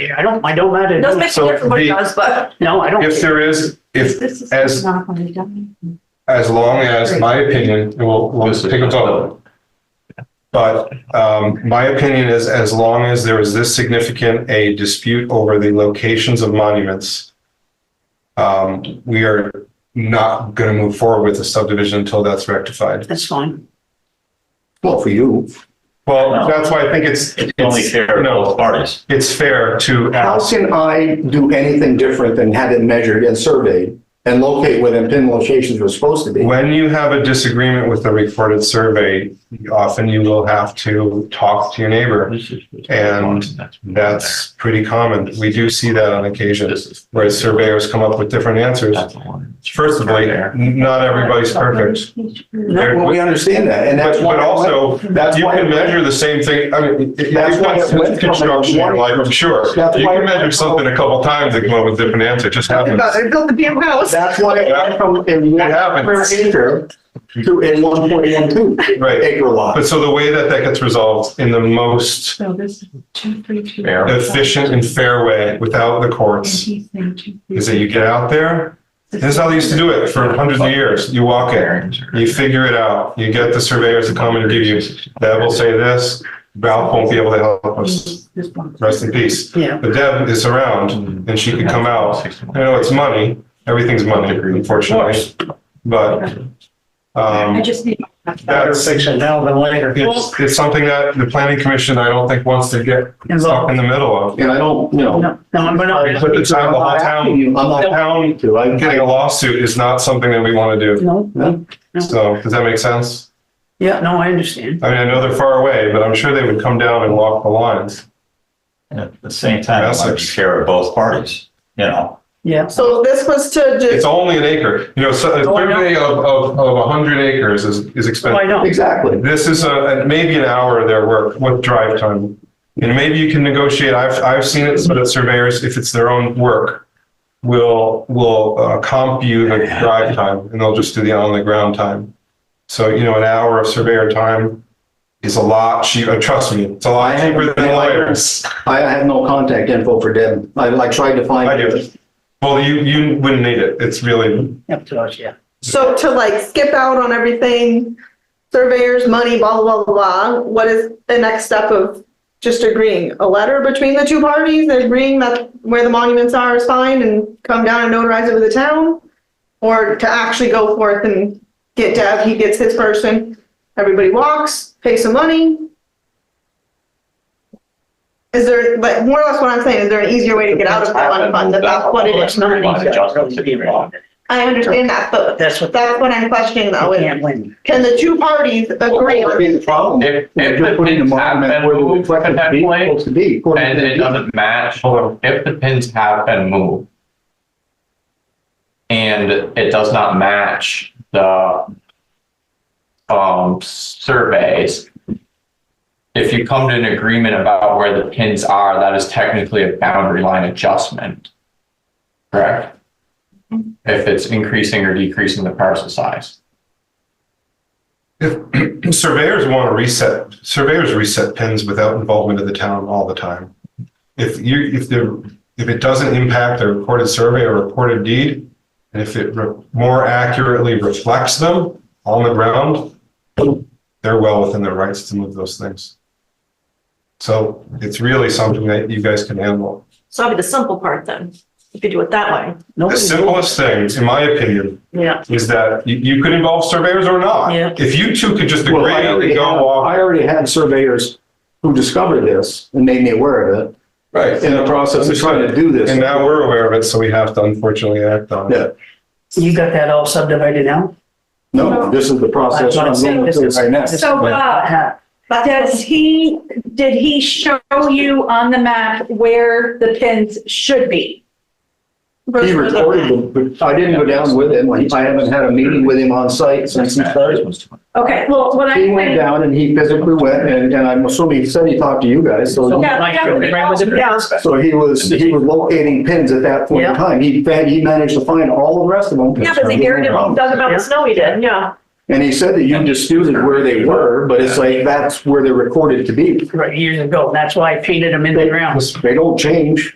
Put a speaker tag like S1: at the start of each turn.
S1: I don't, I don't mind it.
S2: Doesn't make a
S3: So
S2: difference what it
S3: the-
S2: does, but
S1: No, I don't.
S3: If there is, if,
S2: this is
S3: as-
S2: not going to die.
S3: as long as, my opinion, and we'll, we'll take a vote. But um, my opinion is as long as there is this significant a dispute over the locations of monuments, um, we are not going to move forward with the subdivision until that's rectified.
S1: That's fine.
S4: Well, for you.
S3: Well, that's why I think it's,
S5: It's only fair to
S3: No.
S5: both parties.
S3: it's fair to
S4: How
S3: ask.
S4: can I do anything different than have it measured and surveyed and locate where the pin locations were supposed to be?
S3: When you have a disagreement with the recorded survey, often you will have to talk to your neighbor. And That's pretty common. We do see that on occasion, where surveyors come up with different answers. First of all, not everybody's perfect. There-
S4: Well, we understand that, and that's
S3: But,
S4: why.
S3: but also,
S4: that's
S3: you
S4: why-
S3: can measure the same thing, I mean, if you've
S4: That's why
S3: done
S4: it went from
S3: some construction in your
S4: like
S3: life, I'm sure.
S4: That's
S3: You
S4: why it
S3: can measure
S4: went from-
S3: something a couple times and come up with a different answer, It just happens.
S1: built the damn house.
S4: That's why it went from a one per
S3: happens.
S4: acre to a one point one two
S3: Right.
S4: acre lot.
S3: But so the way that that gets resolved in the most
S2: So this is two, three, two.
S5: Fair.
S3: efficient and fair way without the courts is that you get out there. This is how they used to do it for hundreds of years. You walk it. You figure it out. You get the surveyors to come and give you, Deb will say this, Ralph won't be able to help us. Rest in peace.
S1: Yeah.
S3: But Deb is around and she could come out. I know it's money. Everything's money, unfortunately. But,
S2: I
S3: um,
S2: just need.
S1: Better
S3: that's,
S1: fix it now than later.
S3: it's, it's something that the planning commission, I don't think wants to get stuck in the middle of.
S4: And I don't, you know.
S1: No, no, I'm
S3: I
S1: not.
S3: put the town, the whole town,
S4: I'm not
S3: the
S4: asking
S3: town
S4: you to, I'm
S3: getting a lawsuit is not something that we want to do.
S1: No, no.
S3: So does that make sense?
S1: Yeah, no, I understand.
S3: I mean, I know they're far away, but I'm sure they would come down and walk the lines.
S5: And at the same time, it might be
S3: Essex.
S5: fair to both parties, you know?
S1: Yeah.
S6: So this was to
S3: It's
S6: just,
S3: only an acre. You know, so a
S1: Oh, I know.
S3: survey of, of, of a hundred acres is, is
S1: Oh, I
S3: expensive.
S1: know.
S4: Exactly.
S3: This is a, a- maybe an hour of their work, what drive time. And maybe you can negotiate, I've, I've seen it, so that surveyors, if it's their own work, will, will uh, comp you the drive time and they'll just do the on the ground time. So, you know, an hour of surveyor time is a lot cheaper, trust me, it's a lot cheaper than lawyers.
S4: I I have no contact info for Deb. I like tried to find.
S3: I do. Well, you, you wouldn't need it. It's really,
S1: Up to us, yeah.
S6: so to like skip out on everything, surveyors, money, blah, blah, blah, blah. What is the next step of just agreeing? A letter between the two parties, agreeing that where the monuments are is fine and come down and notarize it with the town? Or to actually go forth and get Deb, he gets his person, everybody walks, pay some money? Is there, but more or less what I'm saying, is there an easier way to get out of the one fund? That That's what it is.
S1: It's not an easy job, really, to be involved.
S6: I understand that, but
S1: That's what
S6: That's what I'm questioning
S1: I
S6: though, is
S1: can't win.
S6: can the two parties agree?
S4: I mean, the problem.
S7: If,
S4: You're
S7: if
S4: just
S7: the
S4: putting the
S7: pins have
S4: monument
S7: been
S4: where the
S7: moved
S4: reflective
S7: at that
S4: beam
S7: point,
S4: Supposed to be. according
S7: and
S4: to
S7: it
S4: the-
S7: doesn't match, if the pins have been moved and it does not match the um, surveys, if you come to an agreement about where the pins are, that is technically a boundary line adjustment. Correct? If it's increasing or decreasing the parcel size.
S3: if surveyors want to reset, surveyors reset pins without involvement of the town all the time. If you, if the, if it doesn't impact the recorded survey or recorded deed, and if it re- more accurately reflects them on the ground, they're well within their rights to move those things. So it's really something that you guys can handle.
S2: So that'd be the simple part then, if you do it that way.
S3: The
S1: Nobody-
S3: simplest thing, in my opinion,
S1: Yeah.
S3: is that you, you could involve surveyors or not.
S1: Yeah.
S3: If you two could just
S4: Well,
S3: agree
S4: I
S3: and
S4: already
S3: go
S4: have-
S3: off.
S4: I already had surveyors who discovered this and made me aware of it
S3: Right.
S4: in the process of trying to do this.
S3: And now we're aware of it, so we have to unfortunately act on it.
S4: Yeah,
S1: You got that all subdivided now?
S4: no, this is the process
S1: That's what I'm
S4: I'm
S1: saying,
S4: going
S1: this
S4: through
S1: is-
S4: right now.
S8: So Bob, does he, did he show you on the map where the pins should be?
S4: He recorded, them, but I didn't go down with him. Like, I haven't had a meeting with him on site since he started.
S8: Okay, well, what
S4: He
S8: I'm
S4: went
S8: saying,
S4: down and he physically went and, and I'm assuming he said he talked to you guys, so.
S8: Yeah,
S1: Like,
S8: definitely.
S1: right, was it- yeah.
S4: So he was, he was locating pins at that point in
S1: Yeah.
S4: time. He, fa- he managed to find all the rest of them.
S2: Yeah, but they heard it, does about the snow he did, yeah.
S4: And he said that you disputed where they were, but it's like, that's where they're recorded to be.
S1: Right, years ago, and that's why I painted them in the ground.
S4: They don't change.